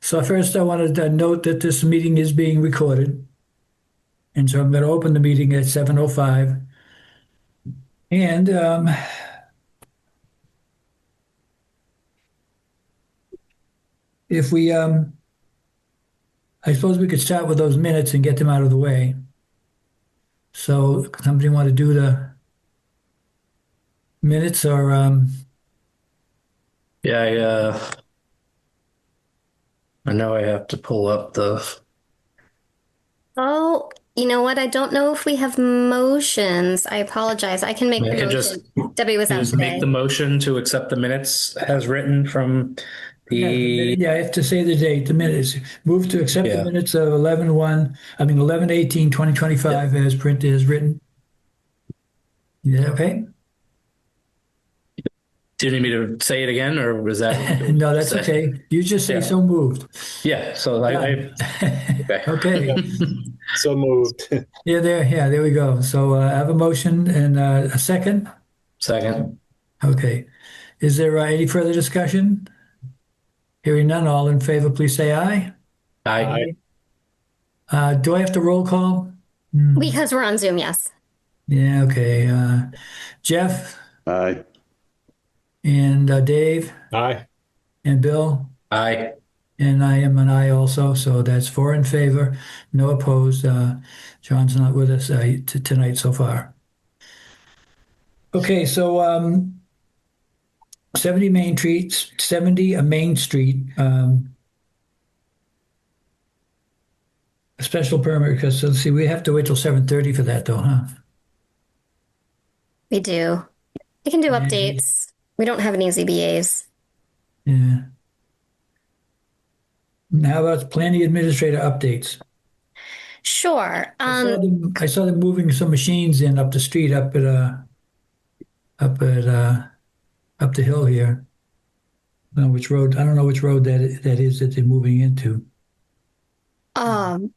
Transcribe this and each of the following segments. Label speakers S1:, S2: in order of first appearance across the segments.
S1: So first, I wanted to note that this meeting is being recorded. And so I'm going to open the meeting at 7:05. And um, if we, um, I suppose we could start with those minutes and get them out of the way. So somebody want to do the minutes or, um,
S2: Yeah, I, uh, I know I have to pull up the,
S3: Oh, you know what? I don't know if we have motions. I apologize. I can make
S2: I
S3: the
S2: can just-
S3: motion. Debbie was out
S2: just make
S3: today.
S2: the motion to accept the minutes as written from the,
S1: yeah, I have to say the date, the minutes. Move to accept the
S2: Yeah.
S1: minutes of 11:1, I mean, 11/18/2025 as printed, as written. Yeah, okay?
S2: do you need me to say it again or was that?
S1: No, that's okay. You just say
S2: Yeah.
S1: so moved.
S2: Yeah, so I, I, okay,
S1: Okay.
S4: So moved.
S1: Yeah, there, yeah, there we go. So uh, I have a motion and uh, a second.
S2: second.
S1: Okay. Is there uh, any further discussion? Hearing none, all in favor, please say aye.
S2: I,
S4: Aye.
S1: Uh, do I have to roll call?
S3: Because we're on Zoom, yes.
S1: Yeah, okay. Uh, Jeff
S5: Uh,
S4: Aye.
S1: and uh, Dave
S4: Aye.
S1: and Bill,
S2: I,
S1: and I am an aye also, so that's four in favor, no opposed. Uh, John's not with us uh, t- tonight so far. Okay, so um, 70 Main Street, 70 Main Street, um, a special permit, because let's see, we have to wait till 7:30 for that though, huh?
S3: We do. We can do updates. We don't have any ZBAs.
S1: Yeah. Now about planning administrator updates.
S3: Sure.
S1: I saw
S3: Um,
S1: them, I saw them moving some machines in up the street, up at uh, up at uh, up the hill here. I don't know which road. I don't know which road that that is that they're moving into.
S3: um,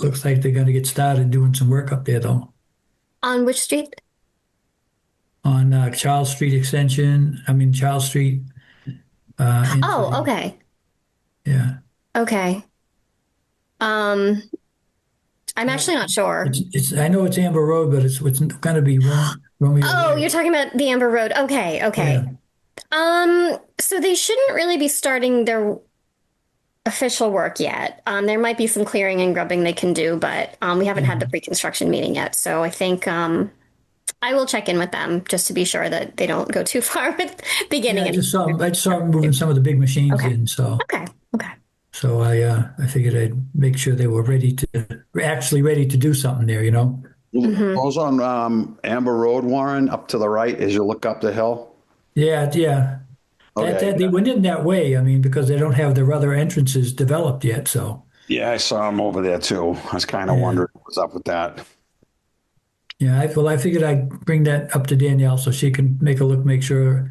S1: Looks like they're going to get started doing some work up there though,
S3: on which street?
S1: on uh, Charles Street Extension. I mean Charles Street. Uh, in-
S3: Oh, okay.
S1: yeah.
S3: Okay. Um, I'm actually not sure.
S1: It's, it's. I know it's Amber Road, but it's it's going to be Ro- Romeo.
S3: Oh, you're talking about the Amber Road. Okay, okay.
S1: Yeah.
S3: Um, so they shouldn't really be starting their official work yet. Um, there might be some clearing and grubbing they can do, but um, we haven't had
S1: Mm-hmm.
S3: the pre-construction meeting yet. So I think um, I will check in with them just to be sure that they don't go too far with beginning.
S1: Yeah, I
S3: and-
S1: just saw. I just saw them moving some of the big machines
S3: Okay.
S1: in. So.
S3: okay, okay.
S1: So I uh, I figured I'd make sure they were ready to actually ready to do something there, you know.
S3: Mhm.
S5: Those on um, Amber Road, Warren, up to the right as you look up the hill.
S1: Yeah, yeah. That, that,
S5: Okay.
S1: they went in that way. I mean, because they don't have their other entrances developed yet. So
S5: Yeah, I saw him over there too. I was kind of
S1: Yeah.
S5: wondering what's up with that.
S1: yeah, I, well, I figured I'd bring that up to Danielle so she can make a look, make sure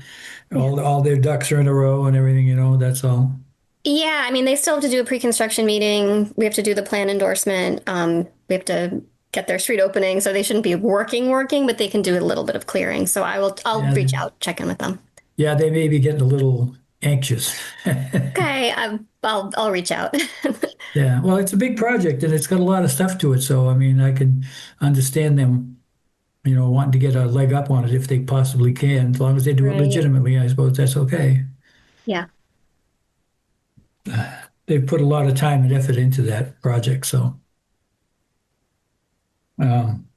S1: all all their ducks are in a row and everything. You know, that's all.
S3: Yeah, I mean, they still have to do a pre-construction meeting. We have to do the plan endorsement. Um, we have to get their street opening, so they shouldn't be working, working, but they can do a little bit of clearing. So I will, I'll
S1: Yeah.
S3: reach out, check in with them.
S1: Yeah, they may be getting a little anxious.
S3: Okay, i I'll, I'll reach out.
S1: Yeah, well, it's a big project and it's got a lot of stuff to it. So I mean, I can understand them, you know, wanting to get a leg up on it if they possibly can, as long as they do it
S3: Right.
S1: legitimately. I suppose that's okay.
S3: Yeah.
S1: They've put a lot of time and effort into that project, so. Um,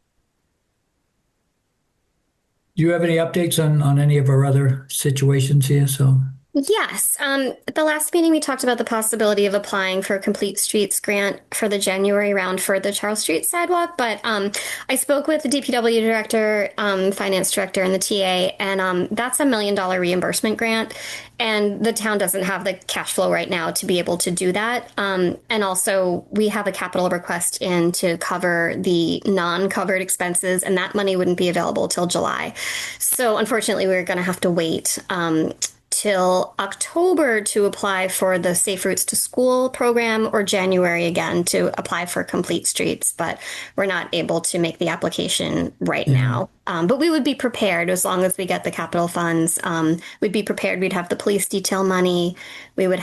S1: do you have any updates on on any of our other situations here? So,
S3: Yes. Um, at the last meeting, we talked about the possibility of applying for a Complete Streets grant for the January round for the Charles Street sidewalk. But um, I spoke with the DPW director, um, finance director, and the TA, and um, that's a million dollar reimbursement grant. And the town doesn't have the cash flow right now to be able to do that. Um, and also, we have a capital request in to cover the non covered expenses, and that money wouldn't be available till July. So, unfortunately, we're going to have to wait. Um, till October to apply for the Safe Routes to School program or January again to apply for Complete Streets, but we're not able to make the application right now. Um, but we would be prepared as long as we get the capital funds. Um, we'd be prepared. We'd have the police detail money. We would